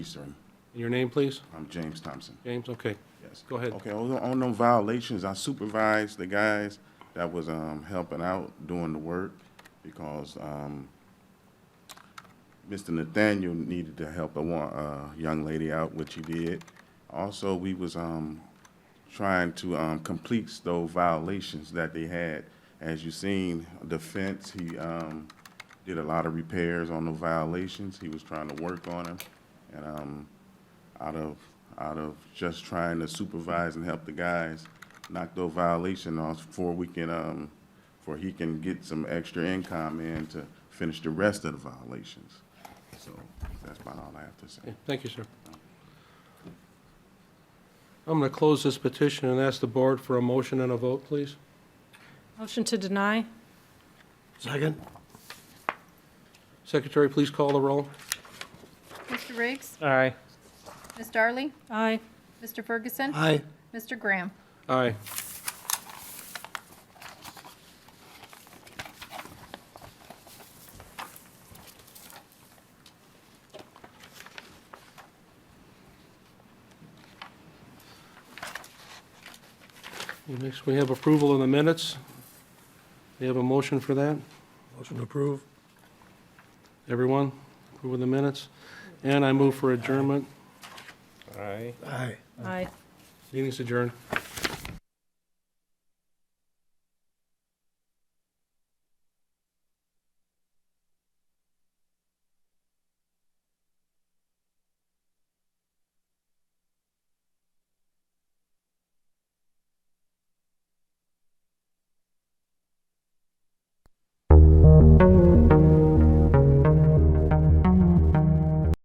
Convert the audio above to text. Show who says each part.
Speaker 1: Eastern.
Speaker 2: And Your name, please?
Speaker 1: I'm James Thompson.
Speaker 2: James, okay.
Speaker 1: Yes.
Speaker 2: Go ahead.
Speaker 1: Okay, on, on no violations, I supervised the guys that was, um, helping out doing the work because, um, Mr. Nathaniel needed to help a one, uh, young lady out, which he did. Also, we was, um, trying to, um, complete those violations that they had. As you seen, the fence, he, um, did a lot of repairs on the violations. He was trying to work on them. And, um, out of, out of just trying to supervise and help the guys knock those violation off before we can, um, before he can get some extra income in to finish the rest of the violations. So that's about all I have to say.
Speaker 2: Yeah, Thank you, sir. I'm going to close this petition and ask the board for a motion and a vote, please.
Speaker 3: Motion to deny?
Speaker 4: Second?
Speaker 2: Secretary, please call the roll.
Speaker 5: Mr. Riggs?
Speaker 4: Aye.
Speaker 5: Ms. Darley?
Speaker 3: Aye.
Speaker 5: Mr. Ferguson?
Speaker 4: Aye.
Speaker 5: Mr. Graham?
Speaker 2: Aye. Next, we have approval of the minutes. We have a motion for that?
Speaker 4: Motion to approve?
Speaker 2: Everyone, approve of the minutes? And I move for adjournment.
Speaker 4: Aye.
Speaker 3: Aye.
Speaker 2: Meeting's adjourned.